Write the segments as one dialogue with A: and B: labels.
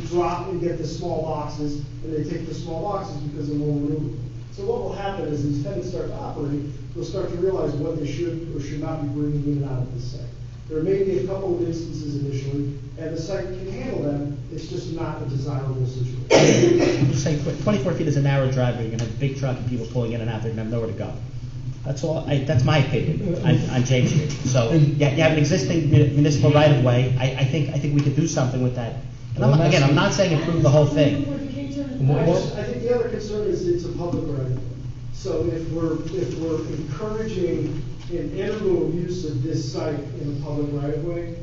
A: drop and get the small boxes, and they take the small boxes because they're more maneuverable. So what will happen is these tenants start to operate, they'll start to realize what they should or should not be bringing in and out of this site. There may be a couple of instances initially, and the site can handle them, it's just not a desirable situation.
B: I'm just saying, tw- twenty-four feet is a narrow driveway, you're gonna have a big truck and people pulling in and out, they're gonna have nowhere to go. That's all, I, that's my opinion on, on James Street. So, yeah, you have an existing mu- municipal right-of-way, I, I think, I think we could do something with that. And I'm, again, I'm not saying improve the whole thing.
A: I just, I think the other concern is it's a public right of way. So if we're, if we're encouraging an integral use of this site in a public right of way,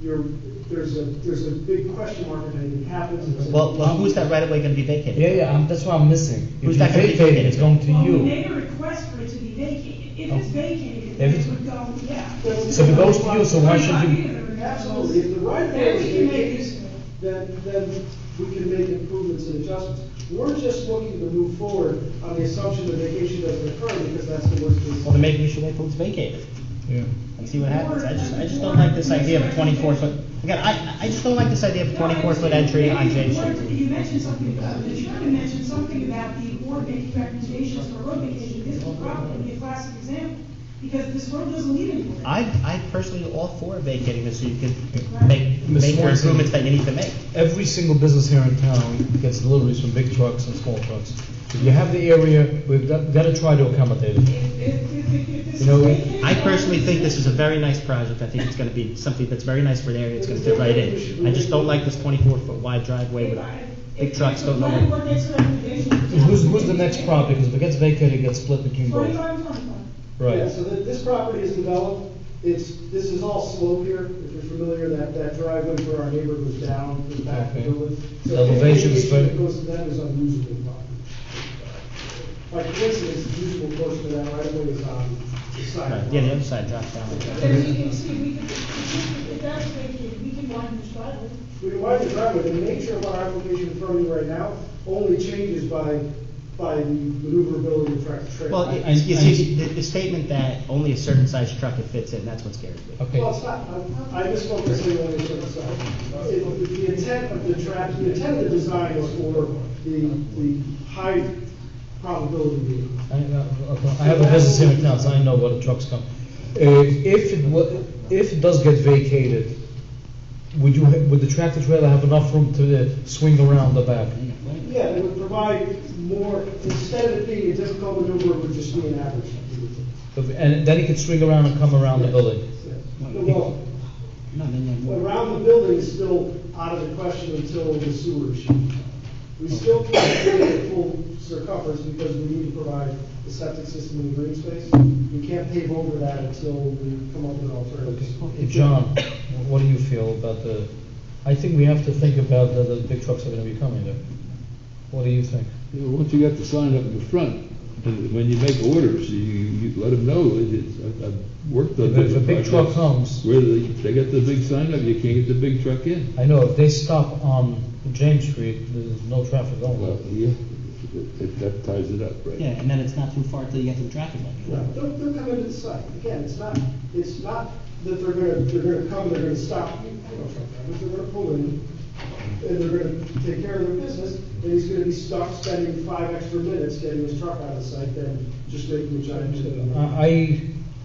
A: you're, there's a, there's a big question mark if anything happens. It's a-
B: Well, well, who's that right-of-way gonna be vacated?
C: Yeah, yeah, I'm- that's what I'm missing. If
B: Who's
C: you
B: that gonna be
C: vacate it,
B: vacated?
C: it's going to
D: Well, we made
C: you.
D: a request for it to be vacated. If it's
C: Oh.
D: vacated,
C: If
D: then
C: it's-
D: it would go, yeah.
C: So if it goes to you, so why should you?
A: Absolutely, if the right of way
D: Then we can
A: is
D: make use of
A: vacated, then,
D: it.
A: then we can make improvements and adjustments. We're just looking to move forward on the assumption that vacation doesn't occur because that's the worst case.
B: Well, then maybe we should wait till it's vacated
C: Yeah.
B: and see what happens. I just, I just don't like this idea of a twenty-four foot, again, I, I just don't like this idea of a twenty-four foot entry on James Street.
D: You mentioned something, uh, the chairman mentioned something about the board making recommendations for road vacation. This will probably be a classic example, because this road doesn't lead anywhere.
B: I, I personally all for vacating this so you can make,
C: Miss
B: make your
C: Swanson.
B: improvements that you need to make.
C: Every single business here in town gets deliveries from big trucks and small trucks. If you have the area, we've got, gotta try to accommodate it.
D: If, if, if, if- if this is
C: You know,
D: vacated.
B: I personally think this is a very nice project, I think it's gonna be something that's very nice for the area, it's gonna fit right in. I just don't like this twenty-four foot wide driveway with big trucks don't know
D: If the
B: where.
D: planning board makes a recommendation.
C: Who's, who's the next property? Because if it gets vacated, it gets split between both.
D: Forty-five, twenty-five.
A: Yeah,
C: Right.
A: so thi- this property is developed, it's, this is all slope here, if you're familiar, that, that driveway where our neighbor goes down, the back of the
C: Okay.
A: building. So
C: Elevation
A: any issue
C: is
A: that
C: very-
A: Goes to that is unusable property. By coincidence, the usable portion of that right away is on the
B: Right,
A: side.
B: Yeah, the other side drops down.
D: As you can see, we can, if that's vacated, we can widen this driveway.
A: We can widen the driveway, the nature of our application in front of you right now only changes by, by the maneuverability of tractor trailer.
B: Well,
C: I-
B: it-
C: I-
B: you
C: I-
B: see, the, the statement that only a certain size truck it fits in, that's what scares me.
C: Okay.
A: Well, it's not, I I just want to say one thing, so, it- the intent of the trap, the intent of the design is for the, the high probability vehicle.
C: I, I- I have a business here in town, so I know where the trucks come. Uh, If it, wa- if it does get vacated, would you, ha- would the tractor trailer have enough room to uh, swing around the back?
A: Yeah, it would provide more, instead of being a difficult maneuver, it would just be an average.
C: And then it could swing around and come around the building?
A: Well,
B: No, then you have more.
A: around the building is still out of the question until the sewer issue. We still can't do the full circumference because we need to provide the septic system and green space. We can't pave over that until we come up with alternatives.
C: Uh, John, what do you feel about the, I think we have to think about that the big trucks are gonna be coming there. What do you think?
E: You know, once you got the sign up in the front, and when you make orders, you, you let them know, it is, I've, I've worked on.
C: If a
E: different
C: big truck
E: projects
C: comes,
E: Where they, they got the big sign up, you can't get the big truck in.
C: I know if they stop on James Street, there's no traffic going
E: Well,
C: there.
E: yeah, it- it- that ties it up, right?
B: Yeah, and then it's not too far till you get to the traffic light.
A: No, They'll, they'll come into the site. Again, it's not, it's not that they're gonna, they're gonna come, they're gonna stop you, you know, sometimes they're gonna pull in, and they're gonna take care of their business, and he's gonna be stuck spending five extra minutes getting his truck out of the site than just making a giant. turn.
C: I,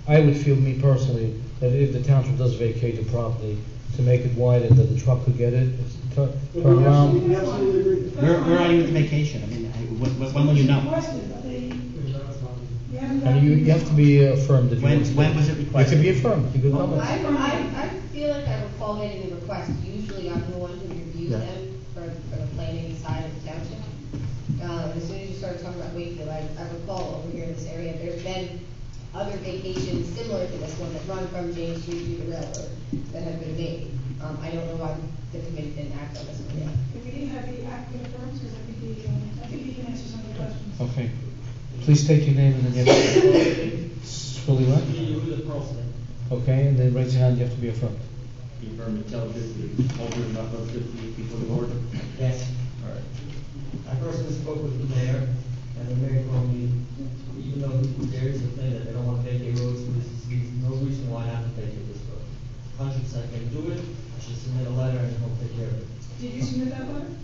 C: I would feel, me personally, that if the township does vacate the property, to make it wider, that the truck could get it, tu-
A: But
C: turn
A: we absolutely,
C: around.
A: we absolutely agree.
B: Where, where are you with the vacation? I mean, I, when, when- when will you know?
D: Requested, but they- we haven't
C: And you, you have to be affirmed if you
B: When,
C: want to.
B: when was it
C: You
B: requested?
C: could be affirmed, you could
B: Well,
C: come.
F: I, I, I feel like I recall getting the request, usually I'm the one who reviews
B: Yeah.
F: them for, for the planning side of the township. Um, as soon as you start talking about Wakefield, I, I recall over here in this area, there's been other vacations similar to this one that run from James Street to the railroad that have been made. Um, I don't know why the committee didn't act on this one yet.
D: If we didn't have the applicant firms, because I think he, um, I think he can answer some of the questions.
C: Okay. Please state your name and then you have to. Fully what? Okay, and then raise your hand, you have to be affirmed.
G: Be affirmed and tell this, the holder of number fifty before the board.